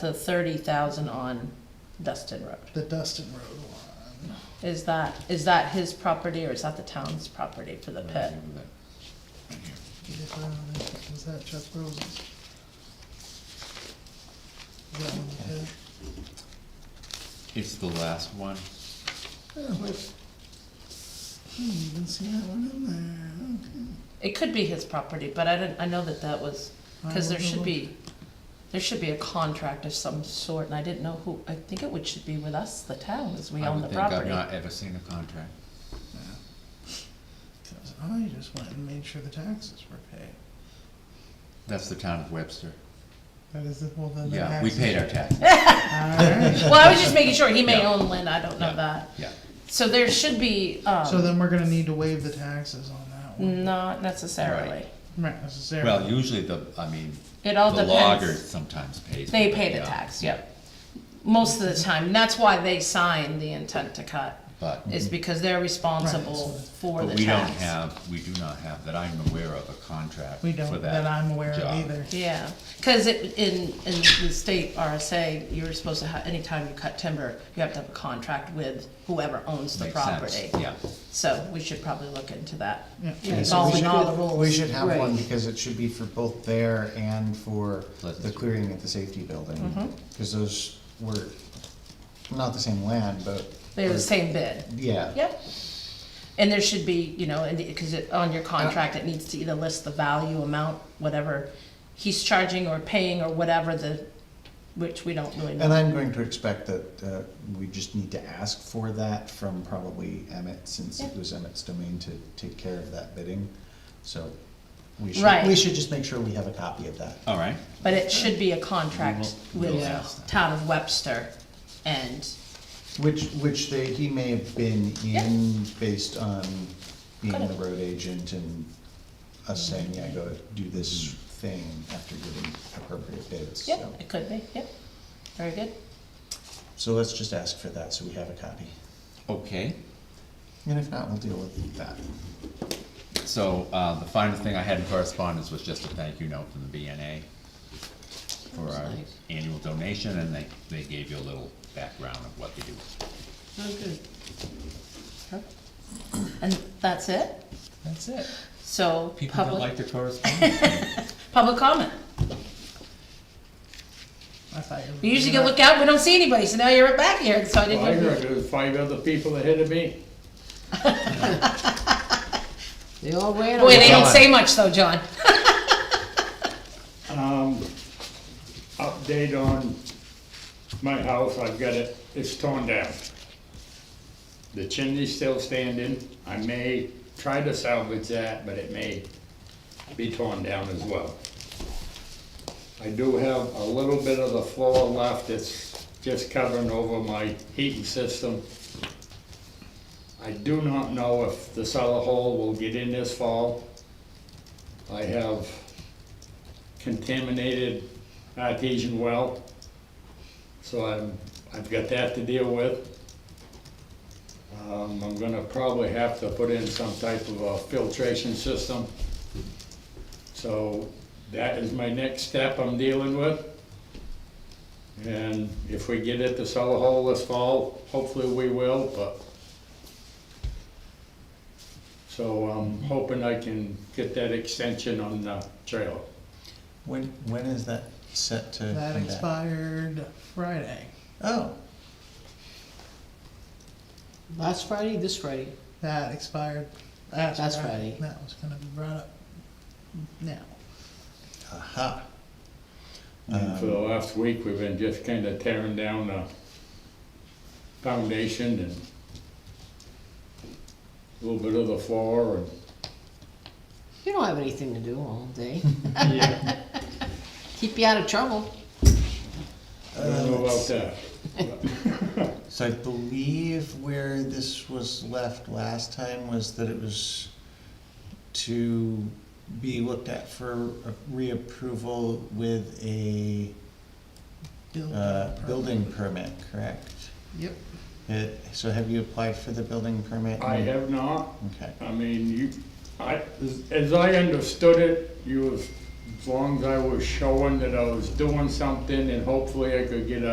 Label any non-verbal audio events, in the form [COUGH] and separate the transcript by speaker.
Speaker 1: the thirty thousand on Dustin Road.
Speaker 2: The Dustin Road one.
Speaker 1: Is that, is that his property or is that the town's property for the pit?
Speaker 2: Is that- Is that Chuck Rose's? Is that one the pit?
Speaker 3: It's the last one.
Speaker 2: Oh, wait. I didn't even see that one in there,
Speaker 1: It could be his property, but I didn't, I know that that was,
Speaker 2: okay.
Speaker 1: cause there should be, there should be a contract of some sort and I didn't know who, I think it would, should be with us, the town, as we
Speaker 3: I
Speaker 1: own
Speaker 3: would
Speaker 1: the
Speaker 3: think I've
Speaker 1: property.
Speaker 3: not ever seen a contract.
Speaker 2: Yeah. 'Cause I just went and made sure the taxes were paid.
Speaker 3: That's the town of Webster.
Speaker 2: That is, the- well, then Oh, the
Speaker 3: Yeah, we
Speaker 2: taxes.
Speaker 3: paid our taxes,
Speaker 2: [LAUGHS] Alright,
Speaker 1: Well, I was just making sure, he may
Speaker 3: Yeah.
Speaker 1: own land, I don't know
Speaker 3: Yeah.
Speaker 1: that.
Speaker 3: yeah.
Speaker 1: So there should be,
Speaker 2: so
Speaker 1: um,
Speaker 2: then we're gonna need to waive the taxes on that one.
Speaker 1: not necessarily.
Speaker 2: Not necessarily.
Speaker 3: Well, usually the, I mean,
Speaker 1: It
Speaker 3: the
Speaker 1: all depends.
Speaker 3: logger sometimes pays.
Speaker 1: They
Speaker 3: for
Speaker 1: pay
Speaker 3: it,
Speaker 1: the
Speaker 3: yeah.
Speaker 1: tax, yep. Most of the time, and that's why they sign the intent to cut,
Speaker 3: But,
Speaker 1: is because they're responsible
Speaker 2: Right.
Speaker 1: for the
Speaker 3: Mm-hmm. but
Speaker 1: tax.
Speaker 3: we don't have, we do not have, that I'm aware of, a contract
Speaker 2: We
Speaker 3: for
Speaker 2: don't, that I'm aware of
Speaker 3: job.
Speaker 2: either.
Speaker 1: Yeah, cause it, in, in the state RSA, you're supposed to have, anytime you cut timber, you have to have a contract with whoever owns the
Speaker 3: Makes sense,
Speaker 1: property.
Speaker 3: Yeah,
Speaker 1: So we should probably look into that,
Speaker 2: Yeah.
Speaker 4: Yeah, so we
Speaker 1: involving
Speaker 4: should-
Speaker 1: all the rules.
Speaker 4: We should have one
Speaker 1: Right.
Speaker 4: because it should be for both there and for
Speaker 3: Pleasant
Speaker 4: the
Speaker 3: Street.
Speaker 4: clearing at the safety
Speaker 1: Mm-hmm.
Speaker 4: building. Cause those were not the same land, but.
Speaker 1: They're the same bid.
Speaker 4: Yeah.
Speaker 1: Yep. And there should be, you know, and, because it, on your contract, it needs to either list the value, amount, whatever he's charging or paying or whatever the, which we don't really
Speaker 4: And
Speaker 1: know.
Speaker 4: I'm going to expect that, uh, we just need to ask for that from probably Emmett, since it
Speaker 1: Yeah.
Speaker 4: was Emmett's domain to take care of that bidding. So we should,
Speaker 1: Right.
Speaker 4: we should just make sure we have a copy of that.
Speaker 3: all right.
Speaker 1: But it should be a contract
Speaker 3: We will-
Speaker 1: with
Speaker 3: we'll ask them.
Speaker 1: town of Webster and,
Speaker 4: Which, which they, he may have been
Speaker 1: Yeah.
Speaker 4: in based on being
Speaker 1: Could've.
Speaker 4: the road agent and us saying, yeah, go do this thing after getting appropriate bids,
Speaker 1: yeah,
Speaker 4: so.
Speaker 1: it could be, yep. Very good.
Speaker 4: So let's just ask for that, so we have a copy.
Speaker 3: Okay,
Speaker 4: And if not, we'll deal with that.
Speaker 3: so, uh, the final thing I had in correspondence was just a thank you note from the BNA for
Speaker 1: was
Speaker 3: our
Speaker 1: nice.
Speaker 3: annual donation, and they, they gave you a little background of what they do.
Speaker 1: And that's it?
Speaker 3: That's it.
Speaker 1: So,
Speaker 3: People that like
Speaker 1: public,
Speaker 3: the correspondence.
Speaker 1: public comment.
Speaker 2: I thought you were-
Speaker 1: We usually go look out, we don't see anybody, so now you're back here, so I
Speaker 5: Well, I
Speaker 1: didn't.
Speaker 5: heard there was five other people ahead of me.
Speaker 6: They all ran
Speaker 1: Boy,
Speaker 6: away.
Speaker 1: they don't say much though, John.
Speaker 5: Um, update on my house, I've got it, it's torn down. The chimney's still standing, I may try to salvage that, but it may be torn down as well. I do have a little bit of the floor left, it's just covering over my heating system. I do not know if the cellar hole will get in this fall. I have contaminated artesian well. So I'm, I've got that to deal with. Um, I'm gonna probably have to put in some type of a filtration system. So that is my next step I'm dealing with. And if we get it to sell a hole this fall, hopefully we will, but. So I'm hoping I can get that extension on the trailer.
Speaker 4: When, when is that set to come
Speaker 2: That
Speaker 4: back?
Speaker 2: expired Friday.
Speaker 4: Oh,
Speaker 6: Last Friday, this Friday.
Speaker 2: That expired last
Speaker 6: That's
Speaker 2: Friday.
Speaker 6: Friday.
Speaker 2: That was gonna be brought up now.
Speaker 4: aha.
Speaker 5: And for
Speaker 4: Um,
Speaker 5: the last week, we've been just kind of tearing down the foundation and a little bit of the floor and.
Speaker 6: You don't have anything to do all day.
Speaker 5: Yeah.
Speaker 6: Keep you out of trouble.
Speaker 5: I don't know about that.
Speaker 4: So I believe where this was left last time was that it was to be looked at for a reapproval with a,
Speaker 2: Building
Speaker 4: uh,
Speaker 2: permit.
Speaker 4: building permit, correct?
Speaker 2: Yep.
Speaker 4: It- so have you applied for the building permit?
Speaker 5: I have not,
Speaker 4: Okay,
Speaker 5: I mean, you, I, as I understood it, you was as long as I was showing that I was doing something and hopefully I could get a